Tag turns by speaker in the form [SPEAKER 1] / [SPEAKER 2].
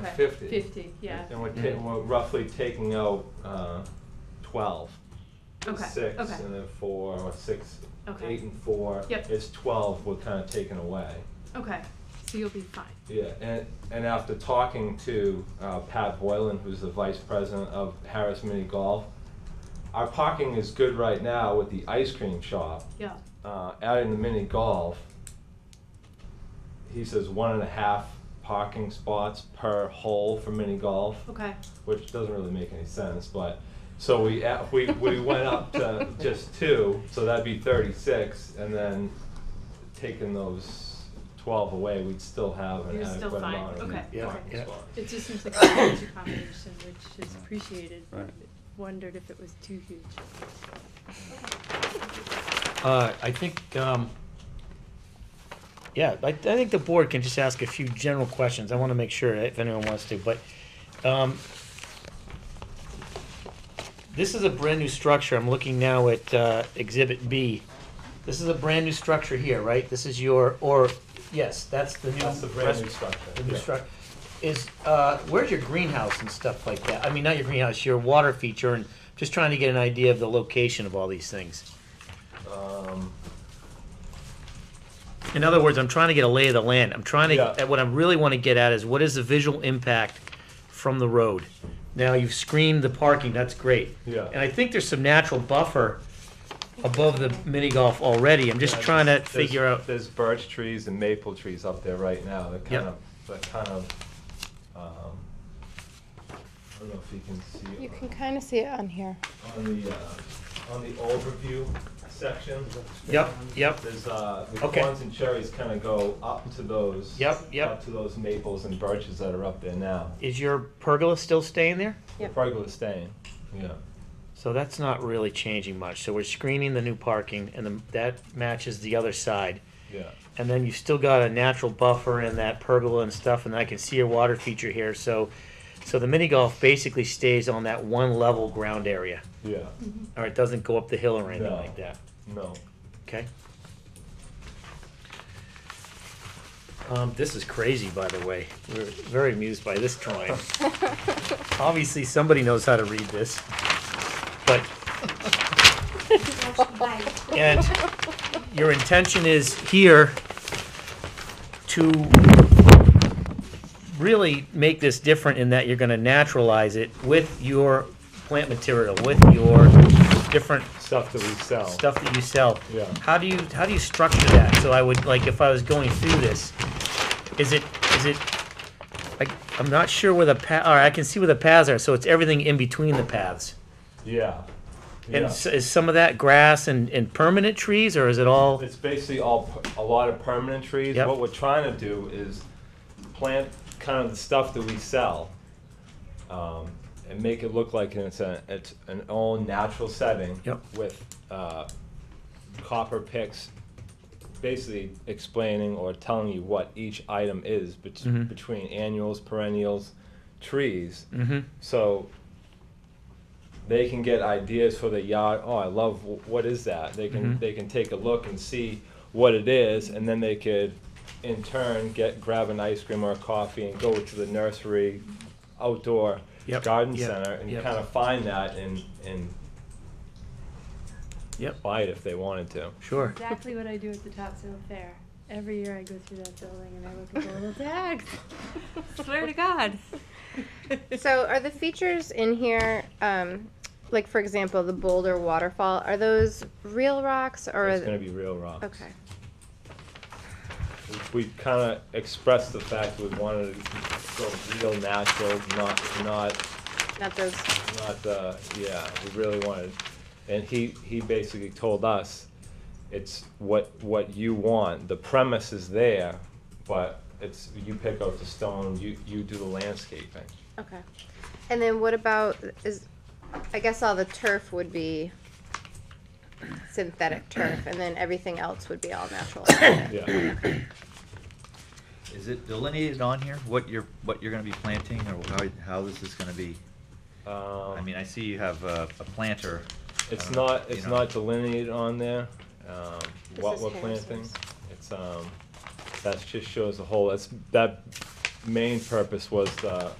[SPEAKER 1] Okay.
[SPEAKER 2] Fifty.
[SPEAKER 1] Fifty, yeah.
[SPEAKER 2] And we're, ta- we're roughly taking out, uh, twelve.
[SPEAKER 1] Okay,
[SPEAKER 2] Six,
[SPEAKER 1] okay.
[SPEAKER 2] and then four, or six,
[SPEAKER 1] Okay.
[SPEAKER 2] eight and four.
[SPEAKER 1] Yep.
[SPEAKER 2] It's twelve we're kinda taking away.
[SPEAKER 1] Okay, so you'll be fine.
[SPEAKER 2] Yeah, and, and after talking to, uh, Pat Boylan, who's the vice president of Harris Mini Golf, our parking is good right now with the ice cream shop.
[SPEAKER 1] Yeah.
[SPEAKER 2] uh, out in the mini golf, he says one and a half parking spots per hole for mini golf,
[SPEAKER 1] Okay.
[SPEAKER 2] which doesn't really make any sense. But so we a- we we went up to just two, so that'd be thirty six, and then taking those twelve away, we'd still have an
[SPEAKER 1] You're still
[SPEAKER 2] adequate
[SPEAKER 1] fine.
[SPEAKER 2] amount of
[SPEAKER 1] Okay.
[SPEAKER 3] Yeah.
[SPEAKER 2] parking
[SPEAKER 3] Yeah.
[SPEAKER 2] spots.
[SPEAKER 1] It just seems like a huge accommodation, which is appreciated.
[SPEAKER 3] Right.
[SPEAKER 1] Wondered if it was too huge.
[SPEAKER 4] Uh, I think, um, yeah, I, I think the board can just ask a few general questions. I want to make sure if anyone wants to, but, um, this is a brand-new structure. I'm looking now at, uh, Exhibit B. This is a brand-new structure here, right? This is your, or, yes, that's the new.
[SPEAKER 2] That's the brand new
[SPEAKER 4] rest-
[SPEAKER 2] structure.
[SPEAKER 4] The new
[SPEAKER 2] Yeah.
[SPEAKER 4] structure. Is, uh, where's your greenhouse and stuff like that? I mean, not your greenhouse, your water feature, and just trying to get an idea of the location of all these things.
[SPEAKER 2] Um,
[SPEAKER 4] In other words, I'm trying to get a lay of the land. I'm trying to,
[SPEAKER 2] Yeah.
[SPEAKER 4] what I really want to get at is what is the visual impact from the road? Now, you've screened the parking, that's great.
[SPEAKER 2] Yeah.
[SPEAKER 4] And I think there's some natural buffer above the mini golf already. I'm just
[SPEAKER 2] yeah,
[SPEAKER 4] trying to
[SPEAKER 2] there's-
[SPEAKER 4] figure out,
[SPEAKER 2] There's birch trees and maple trees up there right now. They're kind
[SPEAKER 4] Yep.
[SPEAKER 2] of, they're kind of. Um, I don't know if you can see.
[SPEAKER 5] You
[SPEAKER 2] on-
[SPEAKER 5] can kind of see it on here.
[SPEAKER 2] on the uh, on the overview section.
[SPEAKER 4] yep, yep,
[SPEAKER 2] There's uh, the
[SPEAKER 4] Okay.
[SPEAKER 2] corns and cherries kind of go up to those.
[SPEAKER 4] Yep, yep.
[SPEAKER 2] Up to those maples and birches that are up there now.
[SPEAKER 4] is your pergola still staying there?
[SPEAKER 5] Yep.
[SPEAKER 2] The pergola is staying. Yeah.
[SPEAKER 4] So that's not really changing much. So we're screening the new parking and the- that matches the other side.
[SPEAKER 2] Yeah.
[SPEAKER 4] and then you've still got a natural buffer and that pergola and stuff, and I can see your water feature here. So, so the mini golf basically stays on that one level ground area,
[SPEAKER 2] Yeah.
[SPEAKER 5] Mm-hmm.
[SPEAKER 4] or it doesn't go up the hill or anything
[SPEAKER 2] No.
[SPEAKER 4] like that.
[SPEAKER 2] No.
[SPEAKER 4] Okay. Um, this is crazy, by the way. We're very amused by this drawing. Obviously, somebody knows how to read this, but And your intention is here to really make this different in that you're gonna naturalize it with your plant material, with your different
[SPEAKER 2] Stuff that we sell.
[SPEAKER 4] stuff that you sell.
[SPEAKER 2] Yeah.
[SPEAKER 4] How do you, how do you structure that? So I would, like, if I was going through this, is it, is it, like, I'm not sure where the pa, all right, I can see where the paths are, so it's everything in between the paths.
[SPEAKER 2] Yeah. Yeah.
[SPEAKER 4] And s- is some of that grass and, and permanent trees, or is it all?
[SPEAKER 2] It's basically all, per- a lot of permanent trees.
[SPEAKER 4] Yep.
[SPEAKER 2] What we're trying to do is plant kind of the stuff that we sell um, and make it look like it's, a, it's an all natural setting
[SPEAKER 4] Yep.
[SPEAKER 2] with uh, copper picks, basically explaining or telling you what each item is bet-
[SPEAKER 4] Mhm.
[SPEAKER 2] between annuals, perennials, trees.
[SPEAKER 4] Mm-hmm.
[SPEAKER 2] So they can get ideas for the yard. Oh, I love wh- what is that? They can
[SPEAKER 4] Mhm.
[SPEAKER 2] they can take a look and see what it is, and then they could in turn get grab an ice cream or a coffee and go to the nursery outdoor
[SPEAKER 4] Yep,
[SPEAKER 2] garden
[SPEAKER 4] yep,
[SPEAKER 2] center and
[SPEAKER 4] yep.
[SPEAKER 2] kind of find that and and
[SPEAKER 4] Yep.
[SPEAKER 2] buy it if they wanted to.
[SPEAKER 4] Sure.
[SPEAKER 1] Exactly what I do at the Topsail Fair. Every year I go through that building and I look at the little tags. Swear to God.
[SPEAKER 5] So are the features in here, um, like for example, the Boulder waterfall, are those real rocks or?
[SPEAKER 2] it's
[SPEAKER 5] are-
[SPEAKER 2] going to be real rock.
[SPEAKER 5] Okay,
[SPEAKER 2] we kind of expressed the fact we wanted to go real natural, not not
[SPEAKER 5] not those,
[SPEAKER 2] not the yeah we really wanted and he he basically told us it's what what you want the premise is there but it's you pick out the stone you you do the landscaping
[SPEAKER 5] okay. And then what about, is, I guess all the turf would be synthetic turf and then everything else would be all natural.
[SPEAKER 2] yeah
[SPEAKER 6] Is it delineated on here, what you're, what you're gonna be planting, or how, how this is gonna be?
[SPEAKER 2] um,
[SPEAKER 6] I mean, I see you have a, a planter. I
[SPEAKER 2] it's
[SPEAKER 6] don't know,
[SPEAKER 2] not
[SPEAKER 6] you
[SPEAKER 2] it's
[SPEAKER 6] know.
[SPEAKER 2] not delineated on there um,
[SPEAKER 5] This
[SPEAKER 2] what
[SPEAKER 5] is
[SPEAKER 2] we're planting
[SPEAKER 5] Harrison's.
[SPEAKER 2] it's um that just shows the whole that's that main purpose was uh, the